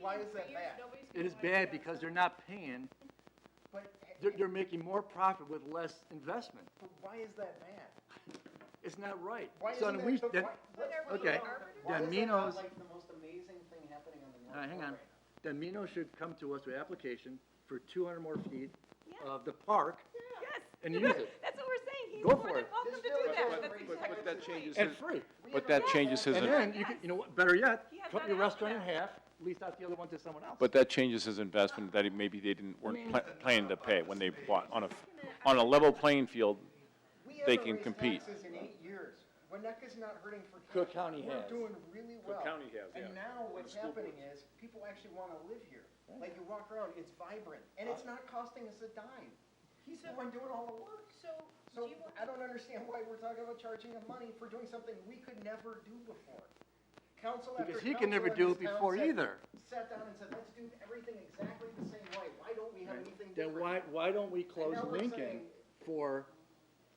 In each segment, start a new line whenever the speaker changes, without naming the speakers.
Why is that bad?
It is bad because they're not paying,
But,
they're, they're making more profit with less investment.
but why is that bad?
It's not right.
Why
So
isn't
then
that,
we-
but
then-
why-
But are
what's
we
wrong?
arbiters?
Why
Then
is that not
Minos-
like the most amazing thing happening on the North
Uh, hang
Pole
on.
right
Then Mino should come to us with application for two hundred more feet
Yeah.
of the park
Yes.
and use it,
That's what we're saying. He's
Go
more
for
than
it.
welcome to
Just
do
do it.
that.
But-
That's
but-
exactly
but
the
that
point.
changes
and free.
We
But
have
that
a-
changes his,
And
in-
then, you could, you know what, better yet,
He has
cut
that
your restaurant in
option.
half, lease out the other one to someone else.
but that changes his investment that he, maybe they didn't, weren't pla- planning to pay when they bought, on a, on a level playing field.
We
they
haven't
can
raised
compete.
taxes in eight years. Winnebago's not hurting for.
Cook County has.
We're doing really well.
County has, yeah.
And now what's happening is, people actually wanna live here. Like, you walk around, it's vibrant, and
Uh.
it's not costing us a dime. He's the one doing all the work.
So, do
So
you, want-
I don't understand why we're talking about charging him money for doing something we could never do before. Council after
Because he can never
council in
do it
this town
before
said-
either.
Sat down and said, let's do everything exactly the same way. Why don't we have anything different?
Then why, why don't we close
now we're
Lincoln
saying-
for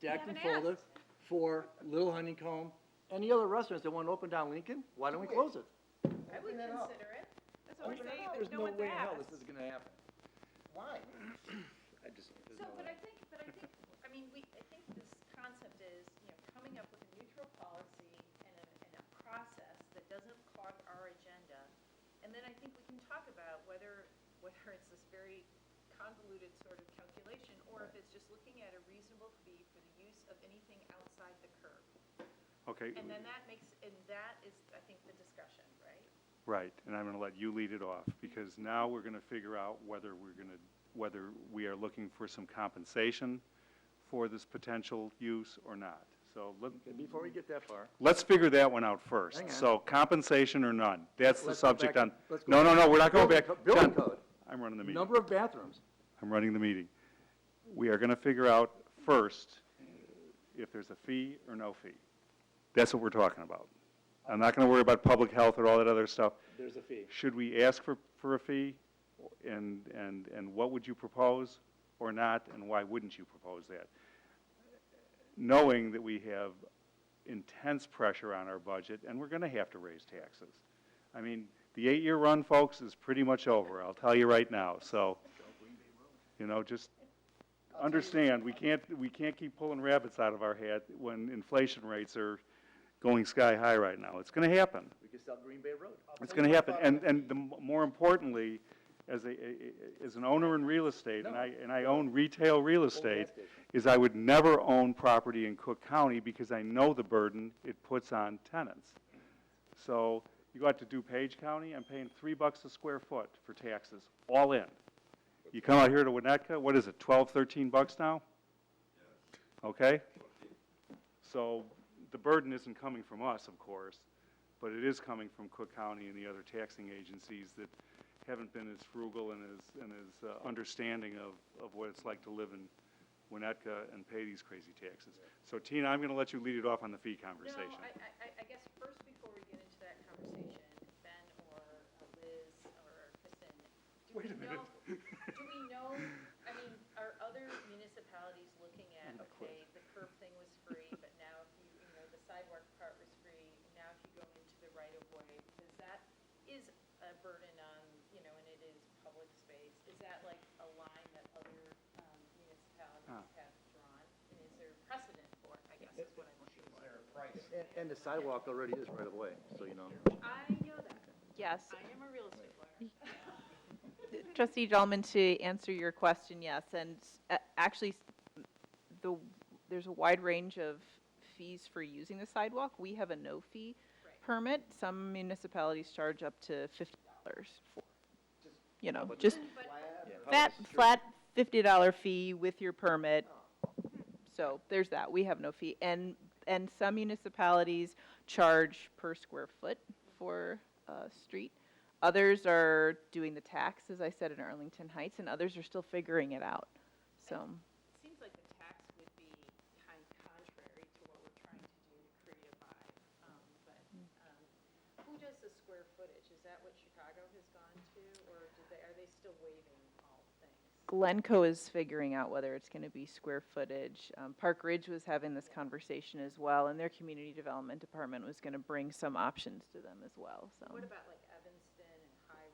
Jack and
haven't
Folda, for Little Honeycomb, any other restaurants that want to open down Lincoln? Why don't we
Do it.
close it?
I would
Open it up.
consider it.
That's what we're saying.
There's
There's
no
no one's
way in hell
asked.
this is gonna happen.
Why?
I just, there's
So,
no
but
way.
I think, but I think, I mean, we, I think this concept is, you know, coming up with a neutral policy and a, and a process that doesn't clog our agenda. And then I think we can talk about whether, whether it's this very convoluted sort of calculation or if it's just looking at a reasonable fee for the use of anything outside the curb.
Okay,
And then that makes, and that is, I think, the discussion, right?
right, and I'm gonna let you lead it off, because now we're gonna figure out whether we're gonna, whether we are looking for some compensation for this potential use or not. So let,
Okay, Before we get that far,
let's figure that one out first.
Hang on.
So compensation or none, that's the
Let's go
subject
back-
on,
let's go
no, no, no, we're not going
Building
back.
co- building
John,
code.
I'm running the meeting.
number of bathrooms,
I'm running the meeting. We are gonna figure out first if there's a fee or no fee. That's what we're talking about. I'm not gonna worry about public health or all that other stuff.
there's a fee.
Should we ask for, for a fee? And, and, and what would you propose or not, and why wouldn't you propose that? Knowing that we have intense pressure on our budget, and we're gonna have to raise taxes. I mean, the eight-year run, folks, is pretty much over, I'll tell you right now, so, you know, just understand, we can't, we can't keep pulling rabbits out of our hat when inflation rates are going sky high right now. It's gonna happen.
We could sell Green Bay Road.
It's going to happen, and, and the, m- more importantly, as a, a- a- as an owner in real estate, and I, and I own retail real estate, is I would never own property in Cook County because I know the burden it puts on tenants. So you go out to DuPage County, I'm paying three bucks a square foot for taxes, all in. You come out here to Winnetka, what is it, twelve, thirteen bucks now? Okay? So the burden isn't coming from us, of course, but it is coming from Cook County and the other taxing agencies that haven't been as frugal and as, and as uh, understanding of, of what it's like to live in Winnetka and pay these crazy taxes. So Tina, I'm gonna let you lead it off on the fee conversation.
No, I, I, I- I guess first, before we get into that conversation, Ben or uh, Liz or Kristen, do we
Wait a minute.
know, do we know, I mean, are other municipalities looking at, okay, the curb thing was free, but now if you, you know, the sidewalk part was free, now if you go into the right of way, because that is a burden on, you know, and it is public space, is that like a line that other, um,
Ah.
municipalities have drawn? And is there precedent for it, I guess is what I'm looking for.
And, and the sidewalk already is right away, so you know.
I know that.
Yes.
I am a real estate lawyer.
Trustee Dahlman, to answer your question, yes, and uh, actually, s- the, there's a wide range of fees for using the sidewalk. We have a no-fee
Right.
permit. Some municipalities charge up to fifty dollars for, you know, just that flat fifty dollar fee with your permit. So there's that. We have no fee. And, and some municipalities charge per square foot for a street. Others are doing the tax, as I said, in Arlington Heights, and others are still figuring it out. So,
It seems like the tax would be kind contrary to what we're trying to do to create a vibe, um, but, um, who does the square footage? Is that what Chicago has gone to, or do they, are they still waiving all things?
Glencoe is figuring out whether it's gonna be square footage. Um, Park Ridge was having this conversation as well, and their community development department was gonna bring some options to them as well, so.
What about like